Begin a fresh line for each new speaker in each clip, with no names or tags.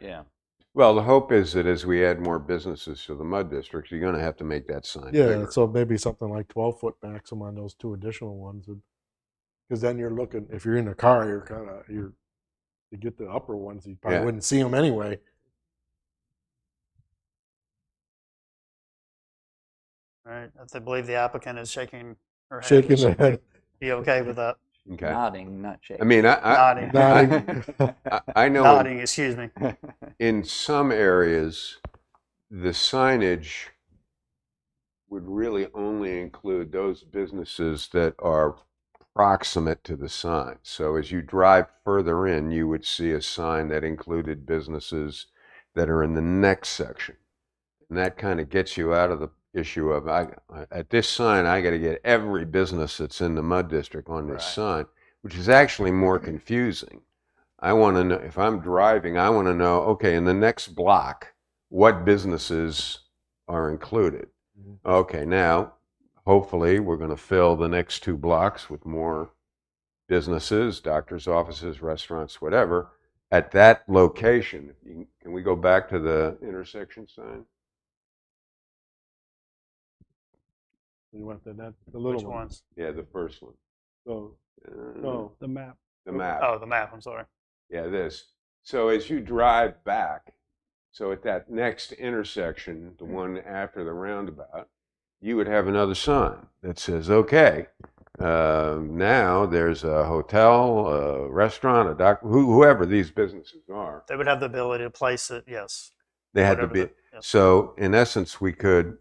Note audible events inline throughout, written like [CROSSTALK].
Yeah.
Well, the hope is that as we add more businesses to the mud districts, you're going to have to make that sign
Yeah,
bigger.
so maybe something like twelve foot maximum on those two additional ones would, because then you're looking, if you're in a car, you're kind of, you're, to get the upper ones, you probably
Yeah.
wouldn't see them anyway.
All right. If they believe the applicant is shaking her head.
Shaking the head,
Be okay with that.
Okay.
Nodding, not shaking.
I mean, I, I,
Nodding.
nodding.
[LAUGHS] I, I know
Nodding, excuse me.
in some areas, the signage would really only include those businesses that are proximate to the sign. So as you drive further in, you would see a sign that included businesses that are in the next section. And that kind of gets you out of the issue of, I, at this sign, I got to get every business that's in the mud district on this
Right.
sign, which is actually more confusing. I want to know if I'm driving, I want to know, okay, in the next block, what businesses are included?
Mhm.
Okay, now hopefully we're going to fill the next two blocks with more businesses, doctors' offices, restaurants, whatever. At that location, You can- can we go back to the intersection sign?
You want the, that, the
Which
little one.
ones?
Yeah, the first one.
So,
Uh,
no,
the map.
The map.
Oh, the map, I'm sorry.
Yeah, this. So as you drive back, so at that next intersection,
Mm.
the one after the roundabout, you would have another sign that says, okay, uh, now there's a hotel, a restaurant, a doc, who- whoever these businesses are,
They would have the ability to place it, yes.
they had to
Whatever
be.
the- yes.
So in essence, we could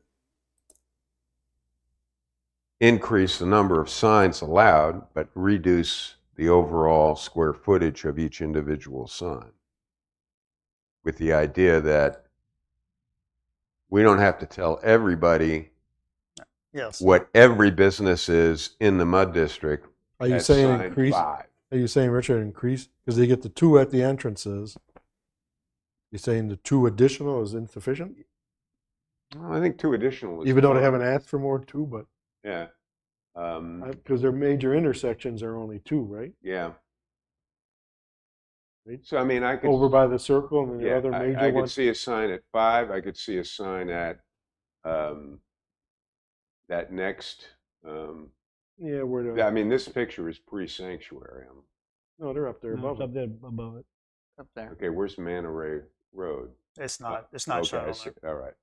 increase the number of signs allowed, but reduce the overall square footage of each individual sign. With the idea that we don't have to tell everybody
Yes.
what every business is in the mud district.
are you
at
saying
sign
increase, are
five.
you saying, Richard, increase, because they get the two at the entrances? You're saying the two additional is insufficient,
Well, I think two additional. is
even though they
fine.
haven't asked for more than two, but,
Yeah. Um,
because their major intersections are only two, right?
yeah.
Right.
So I mean, I could.
Over by the circle and then the
Yeah,
other
I-
major
I
one.
could see a sign at five, I could see a sign at, um, that next, um,
Yeah, where the,
I mean, this picture is pre-sanctuary. Um,
no, they're up there
No, it's
above. it.
up there above it.
[LAUGHS] Up
[LAUGHS]
there.
Okay, where's Manor Ray Road?
It's not, it's not
Okay,
shown
I
on
see-
there.
All right.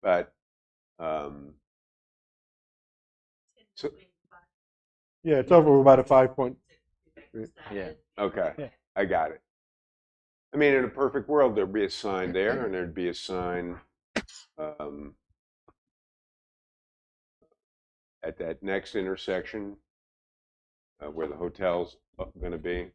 But, um, so,
Yeah, it's over about a five point.
Yeah.
okay,
Yeah.
I got it. I mean, in a perfect world, there'd be a sign there and there'd be a sign, um, at that next intersection, uh, where the hotel's going to be.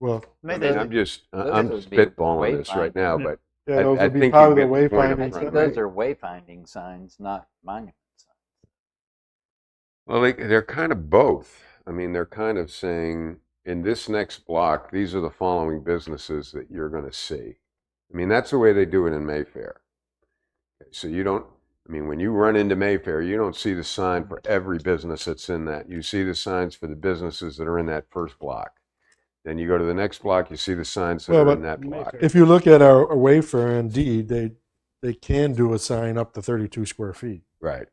Well,
I
Maybe,
mean, I'm just, I-
those
I'm
would be
spitballing this right
wayfinding. [LAUGHS]
now,
Yeah.
but
yeah,
I-
those
I
would be
think
part
you
of the
get the point up
wayfinding.
I
front,
think
stuff,
right?
right?
those are wayfinding signs, not monument signs.
Well, they, they're kind of both. I mean, they're kind of saying, in this next block, these are the following businesses that you're going to see. I mean, that's the way they do it in Mayfair. So you don't, I mean, when you run into Mayfair, you don't see the sign for every business that's in that. You see the signs for the businesses that are in that first block. Then you go to the next block, you see the signs that
Well,
are
but
in that block.
If you look at our our wayfarer indeed, they they can do a sign up to thirty two square feet.
Right.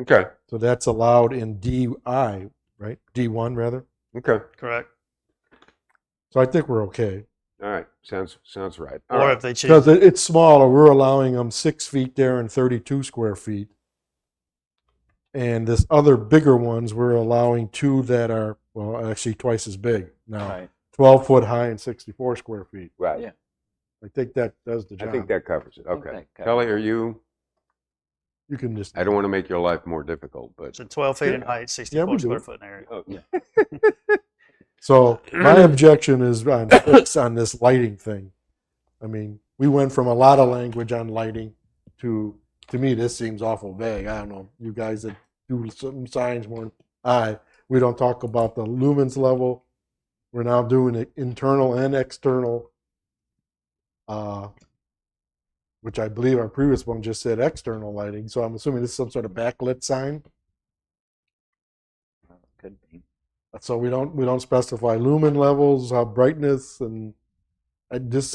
Okay.
So that's allowed in DI, right? D one rather.
Okay.
correct.
So I think we're okay
All right. Sounds sounds right. All
Or
right.
if they choose,
because it, it's smaller. We're allowing them six feet there and thirty two square feet. And this other bigger ones, we're allowing two that are well, actually twice as big now,
Right.
twelve foot high and sixty four square feet.
Right.
Yeah.
I think that does the job.
I think that covers it.
I think
Okay.
that covers
Kelly, are you?
you can just.
I don't want to make your life more difficult, but.
so 12 feet in
Yeah.
height,
Yeah, we
64
do
square
it.
foot in area.
Oh,
Yeah.
So
[CLEARS THROAT]
my objection is on six on this lighting thing. I mean, we went from a lot of language on lighting to to me this seems awful vague. I don't know. You guys that do some signs more than I we don't talk about the lumens level. We're now doing it internal and external. Uh which I believe our previous one just said external lighting. So I'm assuming this is some sort of backlit sign.
Could be.
So we don't we don't specify lumen levels, uh, brightness, and I just